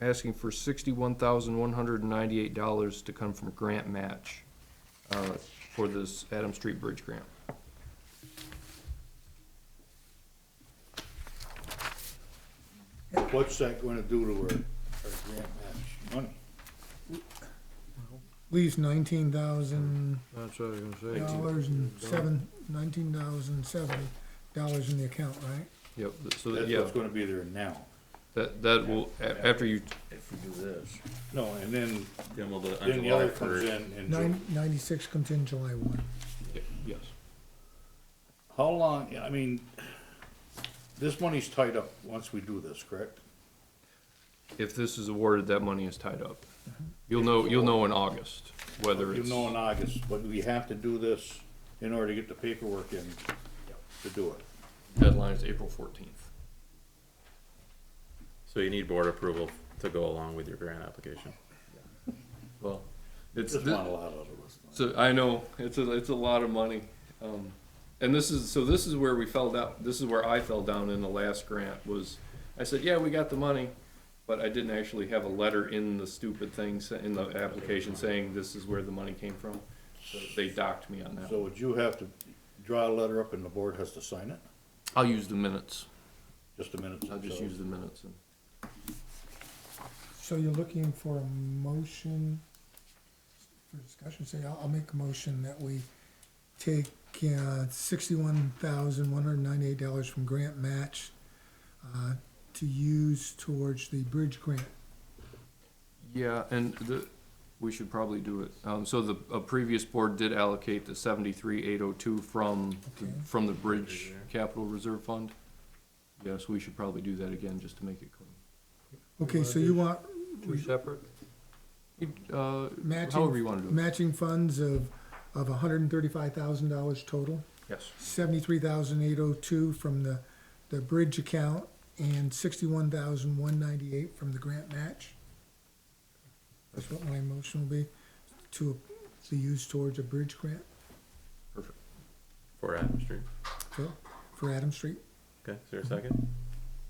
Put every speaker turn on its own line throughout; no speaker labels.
asking for sixty-one thousand one hundred and ninety-eight dollars to come from grant match uh, for this Adam Street Bridge grant.
What's that gonna do to our, our grant match money?
leaves nineteen thousand
That's what I was gonna say.
dollars and seven, nineteen thousand seventy dollars in the account, right?
Yep, so, that-
That's
yeah,
what's gonna be there now.
that, that will, a- after you,
If we do this,
No, and then,
then we'll do it on
then the other
July
comes
first.
in and.
Nine, ninety-six comes in July one.
yes.
How long, I mean, this money's tied up once we do this, correct?
If this is awarded, that money is tied up. You'll know, you'll know in August whether
You
it's,
Mm-hmm. know in August, but we have to do this in order to get the paperwork in to do it.
deadline is April fourteenth.
So you need board approval to go along with your grant application.
Well, it's,
Just not a lot out of us.
So I know it's a it's a lot of money, um, and this is so this is where we fell down. This is where I fell down in the last grant was. I said, yeah, we got the money, but I didn't actually have a letter in the stupid thing sa- in the application saying this is where the money came from. So they docked me on that.
So would you have to draw a letter up and the board has to sign it?
I'll use the minutes.
Just a minute.
I'll just
so-
use the minutes. And
So you're looking for a motion for discussion, say, I'll, I'll make a motion that we take, uh, sixty-one thousand, one hundred ninety-eight dollars from grant match, uh, to use towards the bridge grant.
yeah, and the we should probably do it. Um, so the a previous board did allocate the seventy three eight oh two from the-
Okay.
from the bridge capital reserve fund. Yes, we should probably do that again just to make it clean.
Okay, so you want
Two separate? Uh,
matching.
however you wanna do it.
Matching funds of, of hundred and thirty-five thousand dollars total,
Yes.
seventy-three thousand eight oh two from the, the bridge account, and sixty-one thousand one ninety-eight from the grant match. That's what my motion will be, to, to use towards a bridge grant
Perfect.
For Adams Street.
for, for Adam Street.
Okay, is there a second?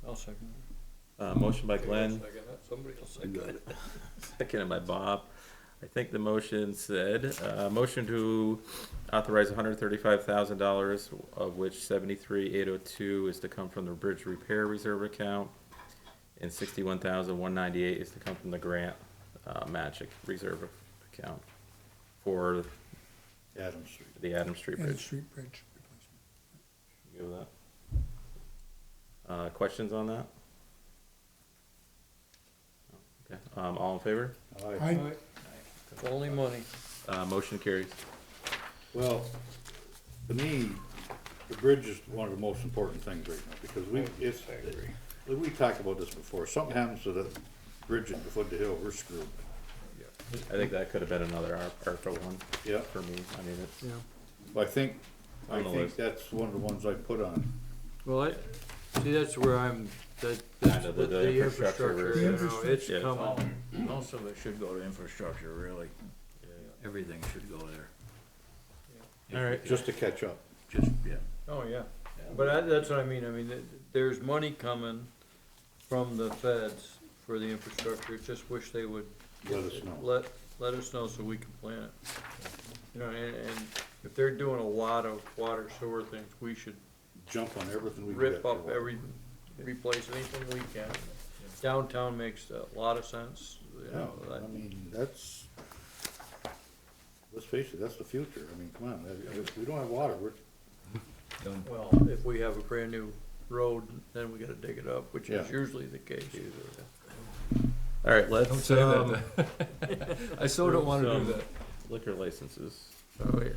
I'll second
Uh, motion by Glenn,
Somebody will second it.
seconded by Bob. I think the motion said, uh, motion to authorize hundred thirty-five thousand dollars, of which seventy-three eight oh two is to come from the bridge repair reserve account. And sixty-one thousand one ninety-eight is to come from the grant, uh, magic reserve account for
Adam Street.
the Adams Street
Adam
Bridge.
Street Bridge.
You good with that? Uh, questions on that? Okay, um, all in favor?
Aye.
I,
Only money.
Uh, motion carries.
Well, to me, the bridge is one of the most important things right now, because we, it's, we talked about this before, something happens to the bridge at the foot of the hill, we're screwed.
I think that could have been another ARP- ARPA one
Yeah,
for me. I mean, it's,
Yeah,
I think, I
On the
think
list.
that's one of the ones I put on.
Well, I, see, that's where I'm, that, that's
Kinda the-
with
the
the
infrastructure
infrastructure,
really.
you know, it's
Yeah.
coming.
Most of it should go to infrastructure, really. Everything should go there,
all right.
Just to catch up.
just, yeah.
Oh, yeah. But I, that's what I mean, I mean, th- there's money coming from the feds for the infrastructure, just wish they would
Let us know.
let, let us know so we can plan it. You know, and, and if they're doing a lot of water sewer things, we should
Jump on everything we get.
rip up every, replace anything we can. Downtown makes a lot of sense, you
Yeah,
know, that-
I mean, that's, let's face it, that's the future. I mean, come on, if- if we don't have water, we're,
well, if we have a brand new road, then we gotta dig it up, which is
Yeah.
usually the case.
All right, let's, um,
I still don't wanna do
Um,
that.
liquor licenses.
Oh, yeah.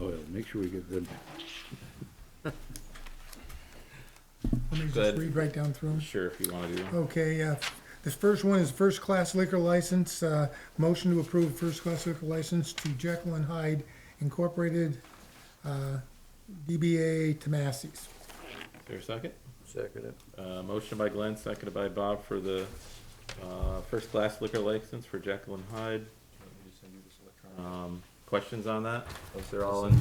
oh, yeah, make sure we get them.
let me just
Good.
read right down through 'em.
Sure, if you wanna do one.
Okay, uh, this first one is first-class liquor license, uh, motion to approve first-class liquor license to Jekyll and Hyde Incorporated, uh, DBA Tomasi's.
Is there a second?
Second it.
Uh, motion by Glenn, seconded by Bob for the, uh, first-class liquor license for Jekyll and Hyde. Um, questions on that? If they're all in,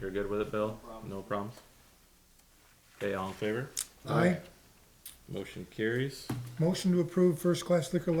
you're good with it, Bill? No problems? Okay, all in favor?
Aye.
Motion carries.
Motion to approve first-class liquor